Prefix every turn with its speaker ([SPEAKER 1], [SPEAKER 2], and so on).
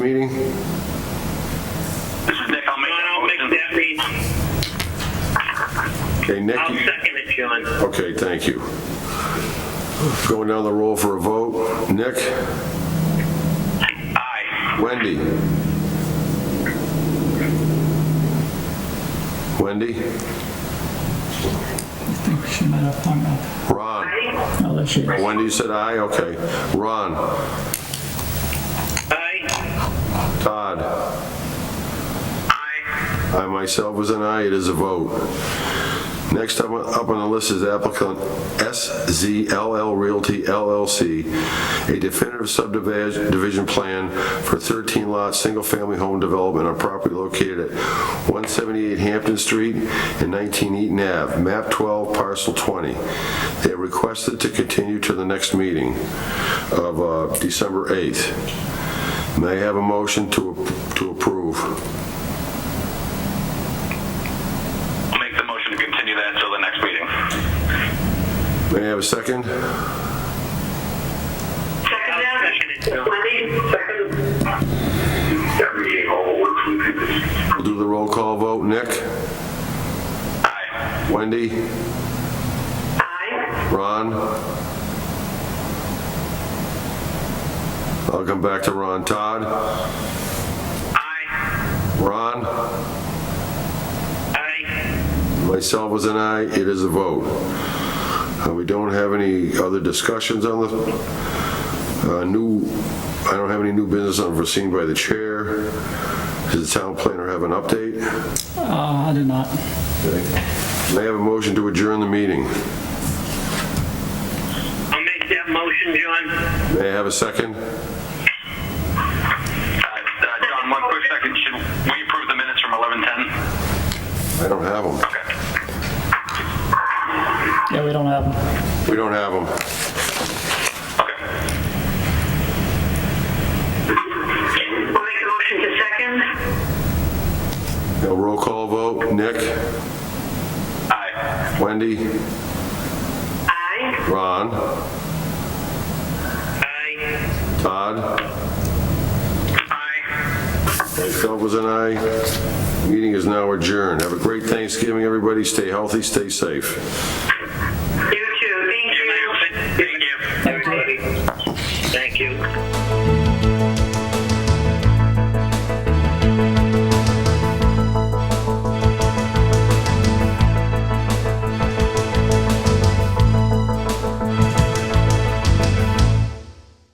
[SPEAKER 1] meeting?
[SPEAKER 2] This is Nick. I'll make
[SPEAKER 3] I'll make
[SPEAKER 2] that motion.
[SPEAKER 3] that mean,
[SPEAKER 1] Okay, Nick?
[SPEAKER 3] I'll second it, John.
[SPEAKER 1] Okay, thank you. Going down the roll for a vote. Nick?
[SPEAKER 2] Aye.
[SPEAKER 1] Wendy? Wendy?
[SPEAKER 4] I think she might have hung up.
[SPEAKER 1] Ron?
[SPEAKER 4] No, there she is.
[SPEAKER 1] Wendy said aye, okay. Ron?
[SPEAKER 3] Aye.
[SPEAKER 1] Todd?
[SPEAKER 3] Aye.
[SPEAKER 1] I myself was an aye, it is a vote. Next up up on the list is applicant SZLL Realty LLC, a definitive subdivision plan for 13-lot, single-family home development on property located at 178 Hampton Street and 19 Eaton Ave, map 12, parcel 20. They are requested to continue to the next meeting of uh, December 8th. May I have a motion to to approve?
[SPEAKER 2] I'll make the motion to continue that until the next meeting.
[SPEAKER 1] May I have a second?
[SPEAKER 3] I'll second it, John.
[SPEAKER 2] Every all works with
[SPEAKER 1] We'll do the roll call vote. Nick?
[SPEAKER 2] Aye.
[SPEAKER 1] Wendy? Ron? I'll come back to Ron. Todd?
[SPEAKER 3] Aye.
[SPEAKER 1] Ron?
[SPEAKER 3] Aye.
[SPEAKER 1] Myself was an aye. It is a vote. Uh, We don't have any other discussions on the, uh, new, I don't have any new business unforeseen by the chair. Does the town planner have an update?
[SPEAKER 4] Uh, I did not.
[SPEAKER 1] May I have a motion to adjourn the meeting?
[SPEAKER 3] I'll make that motion, John.
[SPEAKER 1] May I have a second?
[SPEAKER 2] Uh, uh, John, one quick second. Should we approve the minutes from 11:10?
[SPEAKER 1] I don't have them.
[SPEAKER 2] Okay.
[SPEAKER 4] Yeah, we don't have them.
[SPEAKER 1] We don't have them.
[SPEAKER 2] Okay.
[SPEAKER 3] I'll make a motion to second.
[SPEAKER 1] A roll call vote, Nick,
[SPEAKER 2] Aye.
[SPEAKER 1] Wendy,
[SPEAKER 3] Aye.
[SPEAKER 1] Ron,
[SPEAKER 3] Aye.
[SPEAKER 1] Todd,
[SPEAKER 3] Aye.
[SPEAKER 1] myself was an aye. Meeting is now adjourned. Have a great Thanksgiving, everybody. Stay healthy, stay safe.